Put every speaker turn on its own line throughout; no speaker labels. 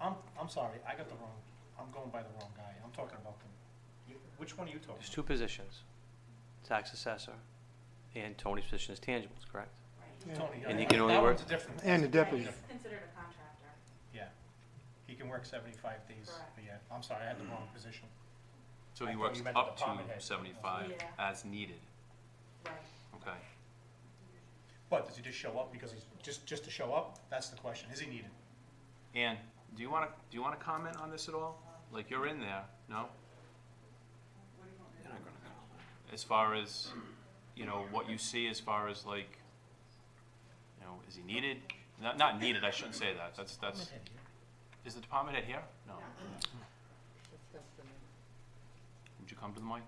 I'm sorry, Oh, I got the wrong, I'm going by the wrong guy. I'm talking about the, you- which one are you talking?
There's
about?
two positions, tax assessor, and Tony's position is tangibles, correct?
Yeah.
Tony.
And
I-
he can only
that
work-
one's a different.
And the deputy.
Different.
He's considered a contractor.
Yeah. He can work seventy-five days
Correct.
a year. I'm sorry, I had the wrong position.
So
I
he
thought
works
you meant
up
department
to
head.
seventy-five
Yeah.
as needed,
Right.
okay?
But does he just show up because he's, just, just to show up? That's the question. Is he needed?
Ann, do you wanna, do you wanna comment on this at all? Like, you're in there, no? As far as, you know, what you see as far as like, you know, is he needed? Not, not needed, I shouldn't say that, that's, that's, is the department head here? No. Would you come to the mic?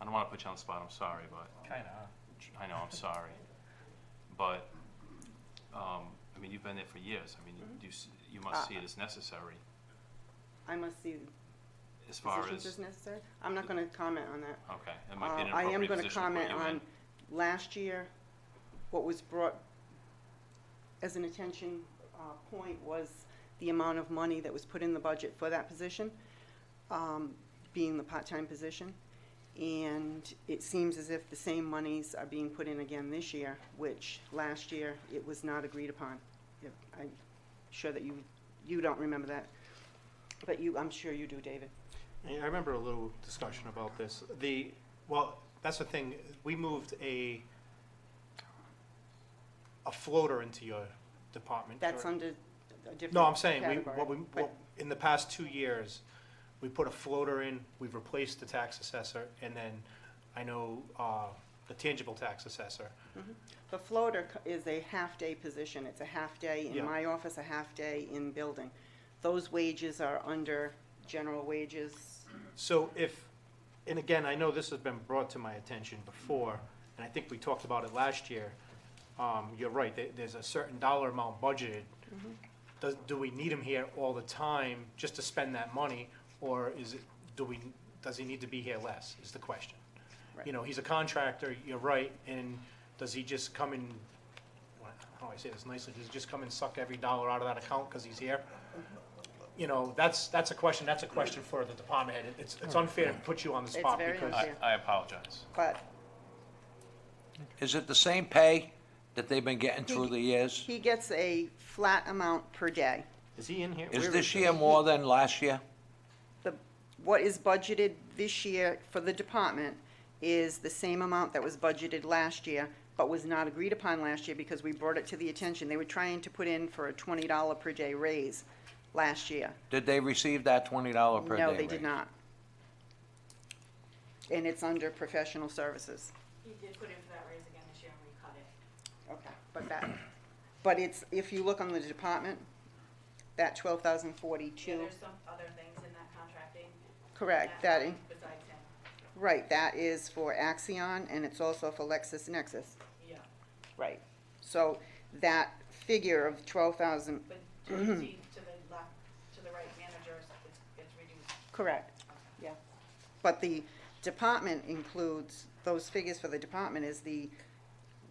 I don't wanna put you on the spot, I'm sorry, but.
Kinda, huh?
I know, I'm sorry. But, um, I mean, you've been there for years. I mean,
Mm-hmm.
you, s- you must
Uh,
see it as necessary
I must see
as far
positions
as,
as necessary. I'm not gonna comment on that.
okay, that might be an
Uh, I am
appropriate
gonna
position to put
comment
you in.
on last year, what was brought as an attention, uh, point was the amount of money that was put in the budget for that position, um, being the part-time position. And it seems as if the same monies are being put in again this year, which last year it was not agreed upon. If- I'm sure that you, you don't remember that, but you, I'm sure you do, David.
Yeah, I remember a little discussion about this. The, well, that's the thing, we moved a, a floater into your department.
That's
correct?
under a different
No, I'm saying, we,
category,
what we,
but-
what, in the past two years, we put a floater in, we've replaced the tax assessor, and then I know, uh, the tangible tax assessor.
The floater c- is a half-day position, it's a half-day
Yeah.
in my office, a half-day in building. Those wages are under general wages,
So if, and again, I know this has been brought to my attention before, and I think we talked about it last year. Um, you're right, there, there's a certain dollar amount budgeted.
Mm-hmm.
Does, do we need him here all the time just to spend that money, or is it, do we, does he need to be here less, is the question? You
Right.
know, he's a contractor, you're right, and does he just come and, how do I say this nicely, does he just come and suck every dollar out of that account because he's here? you know, that's, that's a question, that's a question for the department head. It's, it's unfair to put you on the
It's
spot
very
because,
unfair.
I,
Yeah.
I apologize.
but
Is it the same pay that they've been getting through the years?
he gets a flat amount per day.
is he in here? Where
Is this year more than last year?
The, what is budgeted this year for the department is the same amount that was budgeted last year, but was not agreed upon last year because we brought it to the attention. They were trying to put in for a twenty dollar per day raise last year.
Did they receive that twenty dollar Oh, per day
No, they
raise?
did not. And it's under professional services.
He did put in for that raise again this year and we cut it.
Okay. But that, but it's, if you look on the department, that twelve thousand
Yeah,
forty-two,
there's some other things in that contracting.
correct, that, in-
line Besides him,
right, that is for Axion and it's also for LexisNexis.
yeah.
Right. So that figure of twelve thousand,
But to the, to the left, to the right managers, it's, it's reduced.
correct, yeah. But the department includes, those figures for the department is the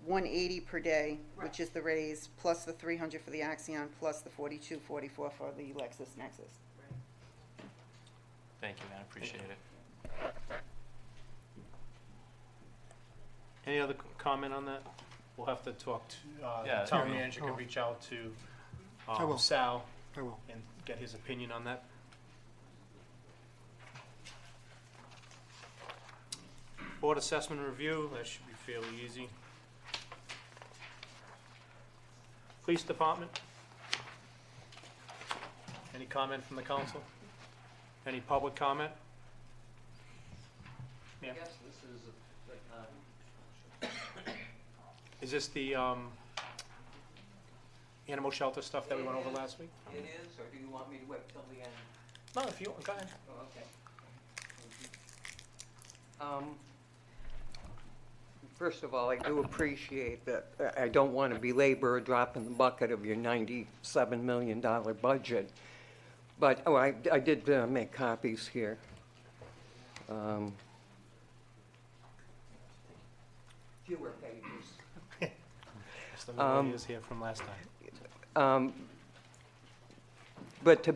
one eighty per day,
Right.
which is the raise, plus the three hundred for the Axion, plus the forty-two, forty-four for the LexisNexis.
Right.
Thank you, man, I appreciate it.
Any other comment on that? We'll have to talk to, uh,
Yeah,
the town
yeah.
manager can reach out to,
Oh. I
um,
will.
Sal
I will.
and get his opinion on that. Board assessment review, that should be fairly easy. Police department? Any comment from the council? Any public comment? Yeah.
Yes, this is, uh,
Is this the, um, animal shelter stuff that we went over last week?
it is, or do you want me to wait till the end?
No, if you, go ahead.
Oh, okay. Um, First of all, I do appreciate that, uh, I- I don't want to belabor a drop in the bucket of your $97 million budget, but, oh, I I did uh, make copies here. Um, Fewer pages.
Just the videos here from last time.
Um, But to